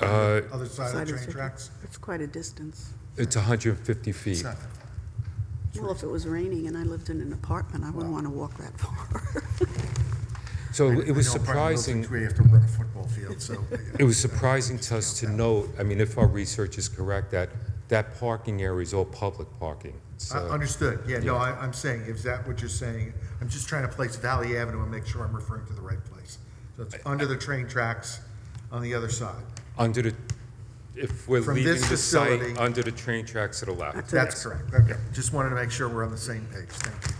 Uh, Other side of Side the is train fifty. tracks? That's quite a distance. It's 150 It's feet. nothing. Well, if it was raining and I lived in an apartment, I wouldn't want to walk that far. So I- I it was know apartment buildings, surprising, We have to run a football field, so. Uh, it was surprising to us to note, I mean, if our research is correct, that that parking area is all public parking. uh, I- So Understood, yeah, no, I, I'm saying, is that what you're saying? I'm just trying to place Valley Avenue and make sure I'm referring to the right place. So it's under the train tracks on the other side. under the, if we're From leaving this the site, facility- under the train tracks to the left. That's it. That's correct, okay. Just wanted to make sure we're on the same page, thank you.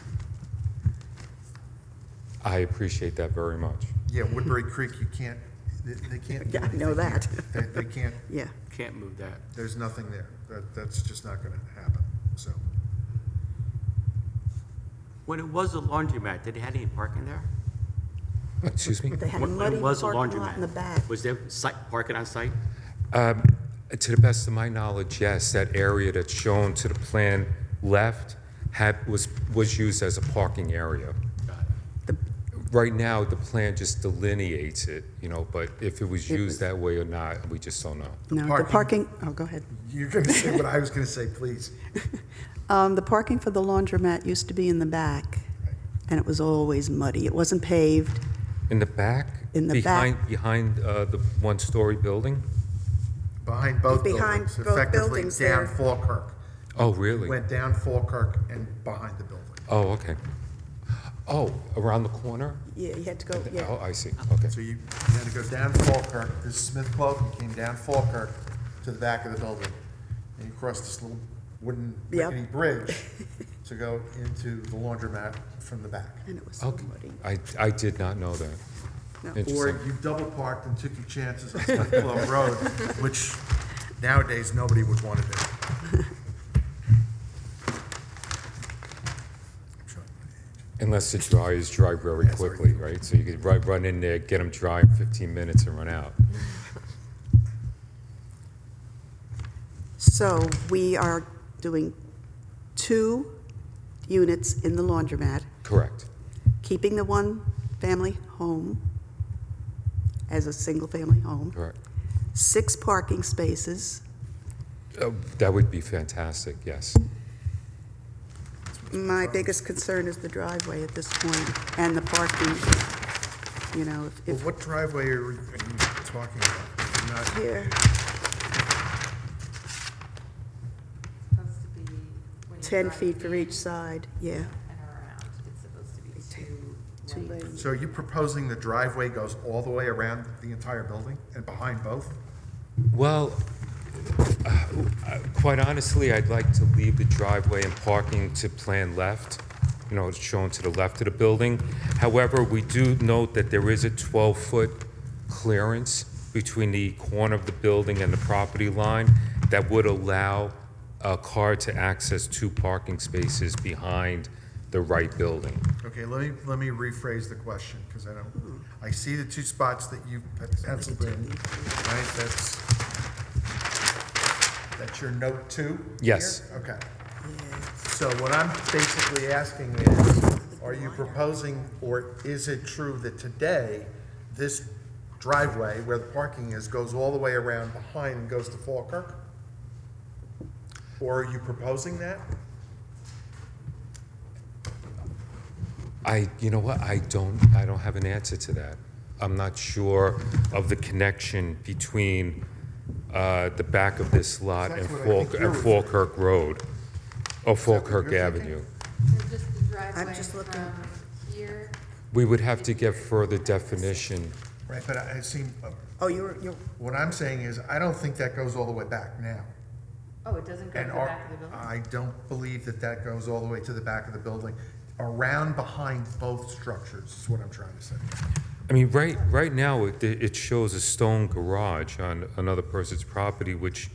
I appreciate that very much. Yeah, Woodbury Creek, you can't, they, they can't. do Yeah, I know anything that. here. They, they can't, Yeah, Can't move that. there's nothing there. That, that's just not gonna happen, so. When it was a laundromat, did it have any parking there? Excuse me? they had a When- When muddy it was a parking lot laundromat, in the back. Was there site, parking on site? To the best of my knowledge, yes, that area that's shown to the plan left had, was, was used as a parking area. Right now, the plan just delineates it, you know, but if it was It used was- that way or not, we just don't know. No, the parking- parking, oh, go ahead. You're gonna say what I was gonna say, please. Um, The parking for the laundromat used to be in the back, and it was always muddy. It wasn't paved. In the back? In the behind, back. Behind uh, the one-story building? Behind both Behind buildings, both effectively buildings down there. Falkirk. Oh, really? Went down Falkirk and behind the building. Oh, okay. Oh, around the corner? Yeah, you had to go, Oh, yeah. I see, okay. So you you had to go down Falkirk, this is Smith Clove, you came down Falkirk to the back of the building. And you crossed this little wooden Yep. rickety bridge to go into the laundromat from the back. And it was so Okay. muddy. I, I did not know that. No. Or Interesting. you double parked and took your chances on Smith Clove Road, which nowadays, nobody would want to do. Unless the dry is dry very Yeah, sorry. quickly, right? So you could run, run in there, get them dry in 15 minutes and run out. So we are doing two units in the laundromat, Correct. keeping the one-family home as a single-family home, Correct. six parking spaces, Uh, That would be fantastic, yes. My biggest concern is the driveway at this point and the parking, you know, if- Well, if, what driveway are we- are you talking about? I'm not- here, supposed to be. when you 10 drive feet for in each side, yeah. And around, it's supposed to be two Two lanes. lanes. So are you proposing the driveway goes all the way around the entire building and behind both? Well, uh, uh, quite honestly, I'd like to leave the driveway and parking to plan left, you know, it's shown to the left of the building. However, we do note that there is a 12-foot clearance between the corner of the building and the property line that would allow a car to access two parking spaces behind the right building. Okay, let me, let me rephrase the question, because I don't, I see the two spots that you penciled in, right? That's, that's your note two? Yes. here? Okay. So what I'm basically asking is, are you proposing, or is it true that today, this driveway where the parking is goes all the way around behind and goes to Falkirk? Or are you proposing that? I, you know what, I don't, I don't have an answer to that. I'm not sure of the connection between uh, the back of this lot and That's what I Falk, think you're and Falkirk Road, or Falkirk you're Avenue. thinking? So just the driveway just looking. from here. We would have to get further definition. Right, but I I seem, Oh, you're, you're, What I'm saying is, I don't think that goes all the way back now. Oh, it doesn't go to And the our- back of the building? I don't believe that that goes all the way to the back of the building, around behind both structures, is what I'm trying to say. I mean, right, right now, it, it shows a stone garage on another person's property, which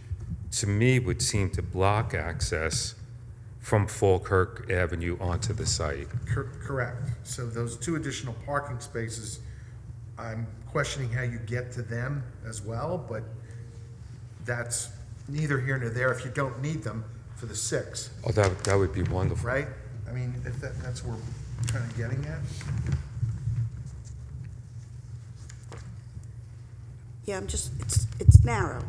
to me would seem to block access from Falkirk Avenue onto the site. Cor- Correct. So those two additional parking spaces, I'm questioning how you get to them as well, but that's neither here nor there if you don't need them for the six, Oh, that, that would be wonderful. right? I mean, if that, that's where we're kind of getting at. Yeah, I'm just, it's, it's narrow.